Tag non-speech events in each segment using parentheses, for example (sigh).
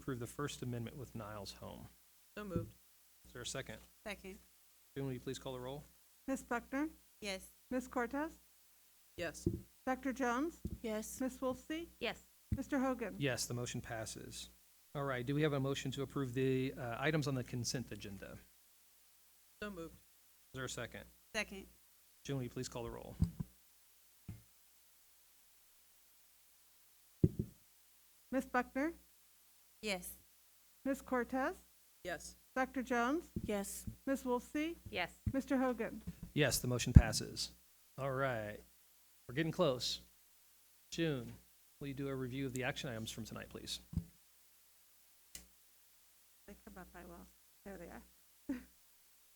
approve the First Amendment with Niles Home. So moved. Is there a second? Second. June, will you please call the roll? Ms. Buckner? Yes. Ms. Cortez? Yes. Dr. Jones? Yes. Ms. Wolfsey? Yes. Mr. Hogan? Yes, the motion passes. All right, do we have a motion to approve the uh, items on the consent agenda? Is So moved. there a second? Second. June, will you please call the roll? Ms. Buckner? Yes. Ms. Cortez? Yes. Dr. Jones? Yes. Ms. Wolfsey? Yes. Oh, Mr. Hogan? Yes, the motion passes. All right, we're getting close. June, will you do a review of the action items from tonight, please? They come up, I will. There they are. (laughs)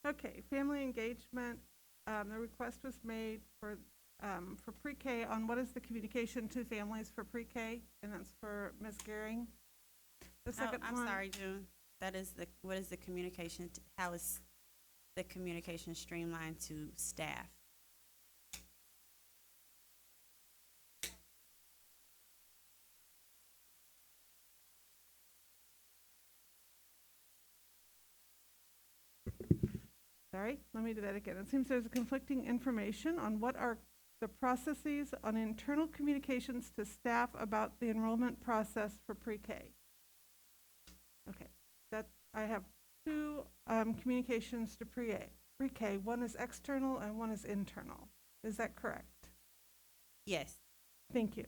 Okay, family engagement, um, the request was made for, um, for pre-K on what is the communication to families for pre-K? And that's for Ms. Gehring. The Oh, second I'm one- sorry, June. That is the, what is the communication, t- how is the communication streamlined to staff? Sorry, let me do that again. It seems there's conflicting information on what are the processes on internal communications to staff about the enrollment process for pre-K. Okay, that, I have two um, communications to pre-A, pre-K. One is external and one is internal. Is that correct? Yes. Thank you.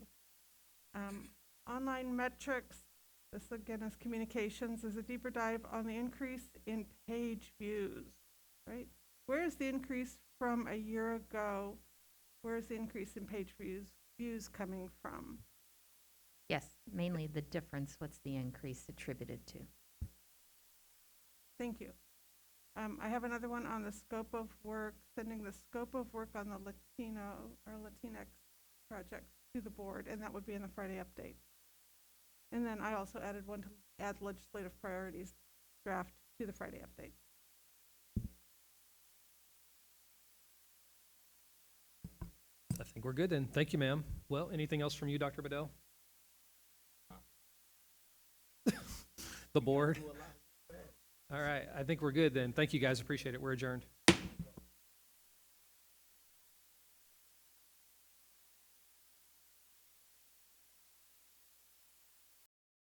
Um, Online metrics, this again is communications, is a deeper dive on the increase in page views, right? Where is the increase from a year ago? Where is the increase in page views, views coming from? Yes, mainly the difference, what's the increase attributed to? Thank you. Um, I have another one on the scope of work, sending the scope of work on the Latino or Latinx project to the board, and that would be in the Friday update. And then I also added one to add legislative priorities draft to the Friday update. I think we're good then. Thank you, ma'am. Well, anything else from you, Dr. Bedell? (laughs) The board? All right, I think we're good then. Thank you, guys. Appreciate it. We're adjourned.